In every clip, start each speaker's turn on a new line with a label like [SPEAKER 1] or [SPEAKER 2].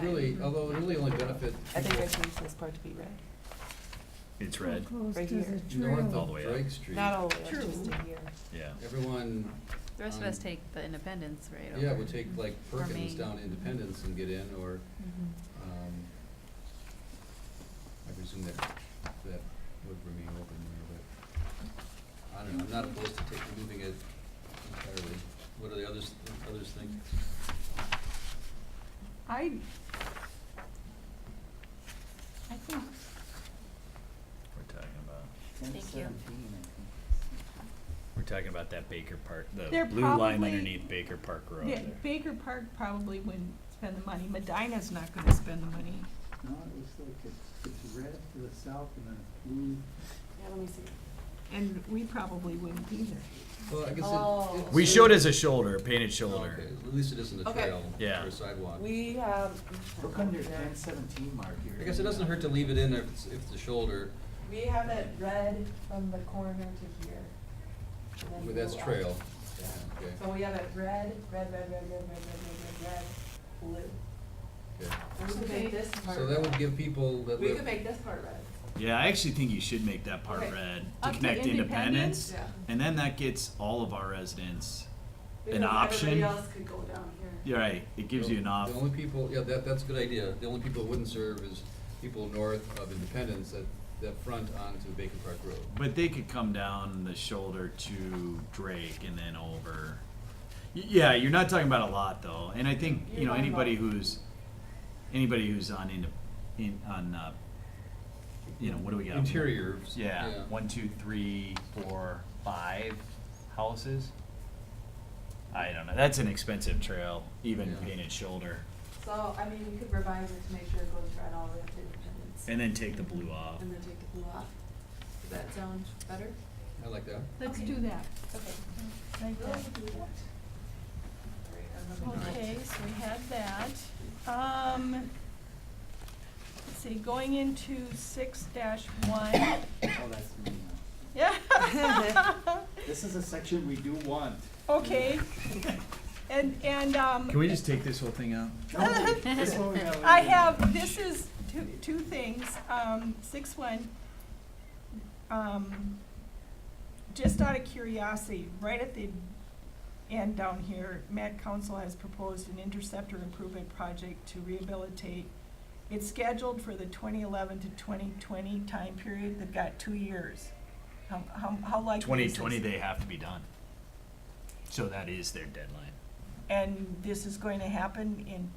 [SPEAKER 1] really, although it really only benefit
[SPEAKER 2] Mm-hmm. I think I
[SPEAKER 1] people
[SPEAKER 2] changed this part to be red.
[SPEAKER 3] It's red,
[SPEAKER 2] Right
[SPEAKER 4] Closed as
[SPEAKER 2] here.
[SPEAKER 4] a
[SPEAKER 1] north
[SPEAKER 3] All the
[SPEAKER 4] trail.
[SPEAKER 1] of
[SPEAKER 3] way up.
[SPEAKER 1] Drake Street.
[SPEAKER 2] Not all the way, up,
[SPEAKER 4] True.
[SPEAKER 2] just to here.
[SPEAKER 3] yeah.
[SPEAKER 1] Everyone,
[SPEAKER 5] The rest of us
[SPEAKER 1] Um,
[SPEAKER 5] take the Independence right over.
[SPEAKER 1] yeah, would take like
[SPEAKER 5] Or
[SPEAKER 1] Perkins
[SPEAKER 5] Maine.
[SPEAKER 1] down to Independence and get in, or,
[SPEAKER 5] Mhm.
[SPEAKER 1] um, I presume that, that would remain open there, but, I don't know, I'm not opposed to taking, moving it entirely. What do the others, others think?
[SPEAKER 4] I, I think,
[SPEAKER 3] We're talking about,
[SPEAKER 5] Thank you.
[SPEAKER 3] we're talking about that Baker Park, the
[SPEAKER 4] They're
[SPEAKER 3] blue line
[SPEAKER 4] probably-
[SPEAKER 3] underneath Baker Park Road
[SPEAKER 4] yeah,
[SPEAKER 3] there.
[SPEAKER 4] Baker Park probably wouldn't spend the money, Medina's not gonna spend the money.
[SPEAKER 6] No, it looks like it's, it's red to the south and then it's blue.
[SPEAKER 2] Yeah, let me see.
[SPEAKER 4] And we probably wouldn't either.
[SPEAKER 1] Well, I guess
[SPEAKER 2] Oh.
[SPEAKER 1] it. it's-
[SPEAKER 3] We showed as a shoulder, painted shoulder.
[SPEAKER 1] Okay, at least it isn't a
[SPEAKER 2] Okay.
[SPEAKER 1] trail
[SPEAKER 3] Yeah.
[SPEAKER 1] or a sidewalk.
[SPEAKER 2] We have.
[SPEAKER 6] How come there's ten seventeen mark here?
[SPEAKER 1] I guess it doesn't hurt to leave it in if it's, if the shoulder,
[SPEAKER 2] We have it red from the corner to here. and then
[SPEAKER 1] well, that's
[SPEAKER 2] blue up.
[SPEAKER 1] trail.
[SPEAKER 2] Yeah.
[SPEAKER 1] Okay,
[SPEAKER 2] So we have it red, red, red, red, red, red, red, red, red, red,
[SPEAKER 1] okay.
[SPEAKER 2] blue. We could make this part.
[SPEAKER 1] So that would
[SPEAKER 2] red.
[SPEAKER 1] give people that
[SPEAKER 2] We could
[SPEAKER 1] live,
[SPEAKER 2] make this part red,
[SPEAKER 3] Yeah, I actually think you should make that part
[SPEAKER 2] Okay.
[SPEAKER 3] red to
[SPEAKER 4] Up to
[SPEAKER 3] connect
[SPEAKER 4] Independence?
[SPEAKER 3] Independence.
[SPEAKER 2] yeah.
[SPEAKER 3] And then that gets all of our residents,
[SPEAKER 2] Because
[SPEAKER 3] option?
[SPEAKER 2] Everybody else could go down here.
[SPEAKER 3] you're right, it gives you an off.
[SPEAKER 1] the only people, yeah, that, that's a good idea. The only people it wouldn't serve is people north of Independence that, that front onto Bacon Park Road.
[SPEAKER 3] But they could come down the shoulder to Drake and then over. Y- Yeah, you're not talking about a lot though, and I think you
[SPEAKER 2] You're
[SPEAKER 3] know
[SPEAKER 2] talking about-
[SPEAKER 3] anybody who's anybody who's on into in on uh, you know what do we got
[SPEAKER 1] Interiors.
[SPEAKER 3] Yeah, one, two, three, four, five houses. I don't know. That's an expensive trail, even
[SPEAKER 1] Yeah.
[SPEAKER 3] painted shoulder,
[SPEAKER 2] So, I mean, we could revise it to make sure it goes red all the way up to Independence.
[SPEAKER 3] and then take the blue off.
[SPEAKER 2] And then take the blue off. Does that sound better?
[SPEAKER 1] I like that.
[SPEAKER 4] Let's
[SPEAKER 2] Okay.
[SPEAKER 4] do that,
[SPEAKER 2] Okay.
[SPEAKER 4] like
[SPEAKER 2] We'll
[SPEAKER 4] that.
[SPEAKER 2] do that. Alright, I'm looking at-
[SPEAKER 4] Okay, so we have that. Um, let's see, going into six dash one,
[SPEAKER 6] Oh, that's me now.
[SPEAKER 4] yeah.
[SPEAKER 6] This is a section we do want.
[SPEAKER 4] Okay, and, and, um,
[SPEAKER 3] we just take this whole thing out?
[SPEAKER 6] No, this one we gotta leave
[SPEAKER 4] I
[SPEAKER 6] in.
[SPEAKER 4] have, this is two, two things, um, six one. Um, just out of curiosity, right at the end down here, Met Council has proposed an interceptor improvement project to rehabilitate. It's scheduled for the twenty eleven to twenty twenty time period, they've got two years. How, how, how likely
[SPEAKER 3] Twenty
[SPEAKER 4] is this?
[SPEAKER 3] twenty, they have to be done. So that is their deadline.
[SPEAKER 4] And this this is going to happen in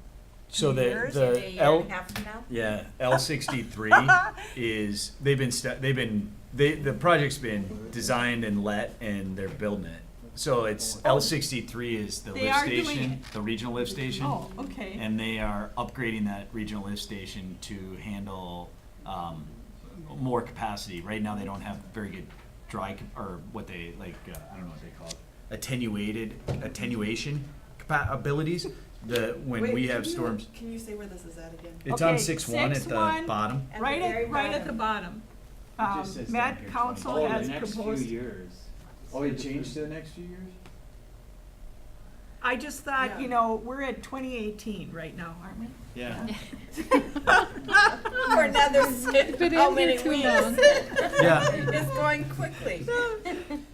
[SPEAKER 3] So the
[SPEAKER 4] Years and
[SPEAKER 3] the Uh, L
[SPEAKER 2] half from now?
[SPEAKER 3] yeah L sixty three is they've been stu they've been they the project's been designed and let and they're building it. So it's L sixty three is the
[SPEAKER 4] Oh. They
[SPEAKER 3] lift
[SPEAKER 4] are doing
[SPEAKER 3] station,
[SPEAKER 4] it.
[SPEAKER 3] the regional lift station,
[SPEAKER 4] Oh, okay.
[SPEAKER 3] and they are upgrading that regional lift station to handle um, more capacity. Right now they don't have very good dry cap- or what they like uh, I don't know what they call it attenuated attenuation capa- abilities. The when
[SPEAKER 2] Wait,
[SPEAKER 3] we
[SPEAKER 2] can
[SPEAKER 3] have
[SPEAKER 2] you-
[SPEAKER 3] storms.
[SPEAKER 2] Can you say where this is at again?
[SPEAKER 3] It's
[SPEAKER 4] Okay,
[SPEAKER 3] on six one at the
[SPEAKER 4] 6-1.
[SPEAKER 3] bottom.
[SPEAKER 2] At the
[SPEAKER 4] Right
[SPEAKER 2] very
[SPEAKER 4] at, right at the bottom.
[SPEAKER 3] just
[SPEAKER 4] Um,
[SPEAKER 3] says down
[SPEAKER 4] Met
[SPEAKER 3] here,
[SPEAKER 4] Council
[SPEAKER 3] 20.
[SPEAKER 6] Oh,
[SPEAKER 4] has
[SPEAKER 6] the next few
[SPEAKER 4] proposed,
[SPEAKER 6] years. Oh, it changed to the next few years?
[SPEAKER 4] I just thought,
[SPEAKER 2] Yeah.
[SPEAKER 4] you know, we're at twenty eighteen right now, aren't we?
[SPEAKER 3] Yeah.
[SPEAKER 2] For another sip, how many weeks?
[SPEAKER 3] Yeah.
[SPEAKER 2] It's going quickly.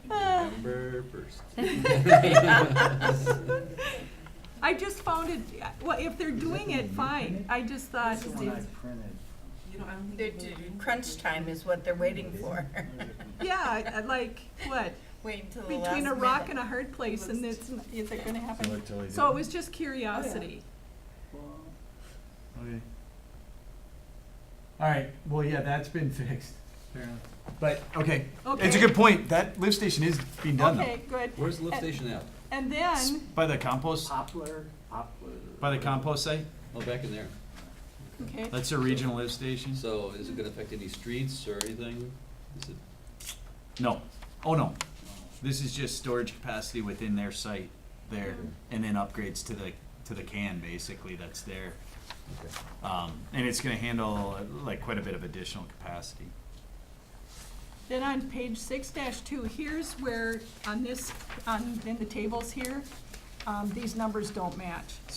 [SPEAKER 1] November first.
[SPEAKER 4] I just found it, well, if they're doing it, fine, I just thought,
[SPEAKER 6] That's the one I printed.
[SPEAKER 2] You know, I don't
[SPEAKER 7] They're
[SPEAKER 2] think.
[SPEAKER 7] d- Crunch time is what they're waiting for.
[SPEAKER 4] yeah, I- I like, what,
[SPEAKER 7] Wait till the last
[SPEAKER 4] between a rock and
[SPEAKER 7] minute.
[SPEAKER 4] a hard place and it's, is it gonna happen?
[SPEAKER 3] Okay.
[SPEAKER 4] So it was just curiosity.
[SPEAKER 3] All right, well, yeah, that's been fixed. But, okay, it's
[SPEAKER 4] Okay.
[SPEAKER 3] a good point. That lift station is being done
[SPEAKER 4] Okay,
[SPEAKER 3] though.
[SPEAKER 4] good.
[SPEAKER 1] Where's the lift
[SPEAKER 4] And-
[SPEAKER 1] station at?
[SPEAKER 4] And
[SPEAKER 3] It's
[SPEAKER 4] then,
[SPEAKER 3] By the compost,
[SPEAKER 6] Poplar, poplar.
[SPEAKER 3] by the compost site?
[SPEAKER 1] Oh, back in there.
[SPEAKER 4] okay,
[SPEAKER 3] That's a regional lift station?
[SPEAKER 1] So is it gonna affect any streets or anything? Is it,
[SPEAKER 3] No, oh no. This is just storage capacity within their site there and then upgrades to the, to the can basically that's there.
[SPEAKER 1] okay.
[SPEAKER 3] Um, and it's gonna handle uh, like quite a bit of additional capacity.
[SPEAKER 4] Then on page six two, here's where, on this, on, in the tables here, um, these numbers don't match.